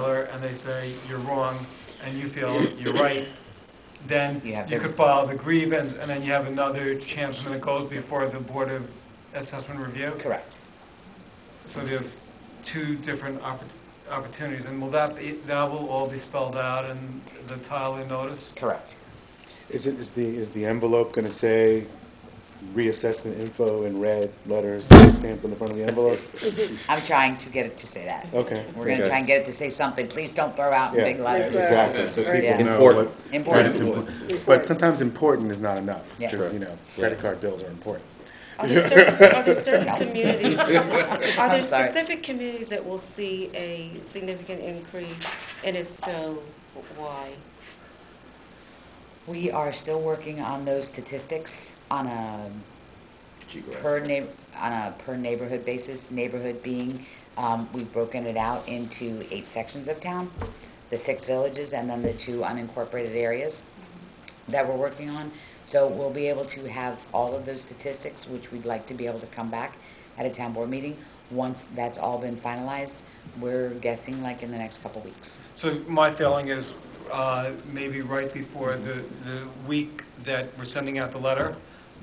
and they say you're wrong, and you feel you're right, then You have you the- could file the grievance, and then you have another chance when it goes before the Board of Assessment Review. Correct. So there's two different oppor- opportunities, and will that be, that will all be spelled out in the Tyler notice? Correct. Is it, is the, is the envelope gonna say reassessment info in red letters stamped on the front of the envelope? I'm trying to get it to say that. Okay. We're gonna try and get it to say something. Please don't throw out in Yeah, big letters. Exactly, so Right. Yeah. people know Important. what. Important. that's impor- But Important. sometimes important is not enough, Yeah. because, Sure. you know, credit card bills are important. Are there certain, are there certain communities, are there I'm sorry. specific communities that will see a significant increase? And if so, why? We are still working on those statistics on a per neigh, on a per neighborhood basis, neighborhood being, um, we've broken it out into eight sections of town, the six villages and then the two unincorporated areas that we're working on. So we'll be able to have all of those statistics, which we'd like to be able to come back at a town board meeting. Once that's all been finalized, we're guessing like in the next couple weeks. So my feeling is, uh, maybe right before the, the week that we're sending out the letter,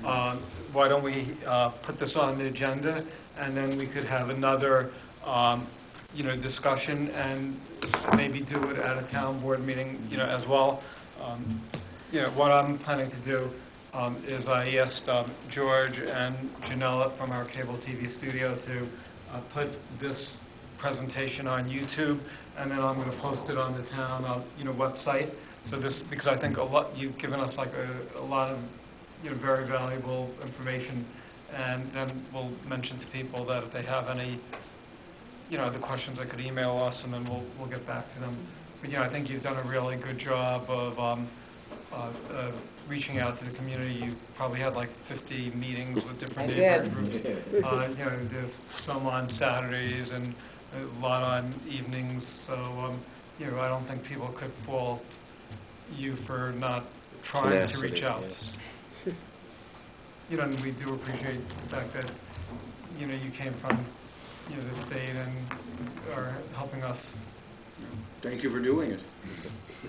uh, why don't we uh, put this on the agenda, and then we could have another, um, you know, discussion, and maybe do it at a town board meeting, you know, as well. Um, You know, what I'm planning to do um, is I asked um, George and Janella from our cable TV studio to uh, put this presentation on YouTube, and then I'm going to post it on the town, uh, you know, website. So this, because I think a lot, you've given us like a, a lot of, you know, very valuable information, and then we'll mention to people that if they have any, you know, the questions, they could email us, and then we'll, we'll get back to them. But, you know, I think you've done a really good job of, um, uh, of reaching out to the community. You probably had like 50 meetings with different I neighborhood did. groups. Uh, You know, there's some on Saturdays and a lot on evenings, so, um, you know, I don't think people could fault you for not trying to reach out. You know, and we do appreciate the fact that, you know, you came from, you know, the state and are helping us. Thank you for doing it,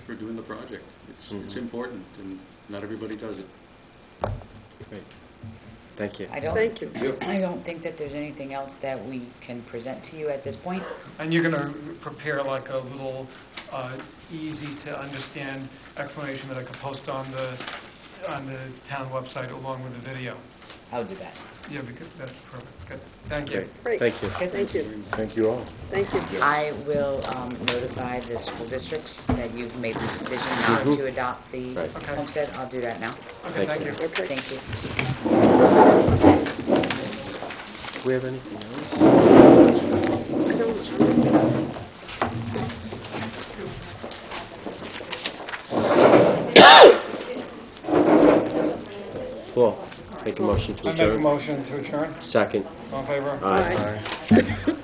for doing the project. It's, it's important, and not everybody does it. Thank you. I don't. Thank you. Yep. I don't think that there's anything else that we can present to you at this point. And you're going to prepare like a little uh, easy to understand explanation that I could post on the, on the town website along with the video. I'll do that. Yeah, because that's perfect. Good. Thank you. Great. Thank you. Thank you. Thank you all. Thank you. I will um, notify the school districts that you've made the decision not to adopt the Right. Okay. homestead. I'll do that now. Okay, thank Thank you. you. Thank you. Do we have anything else? Cool. Make a motion to I make a adjourn. motion to adjourn. Second. All in favor? Aye.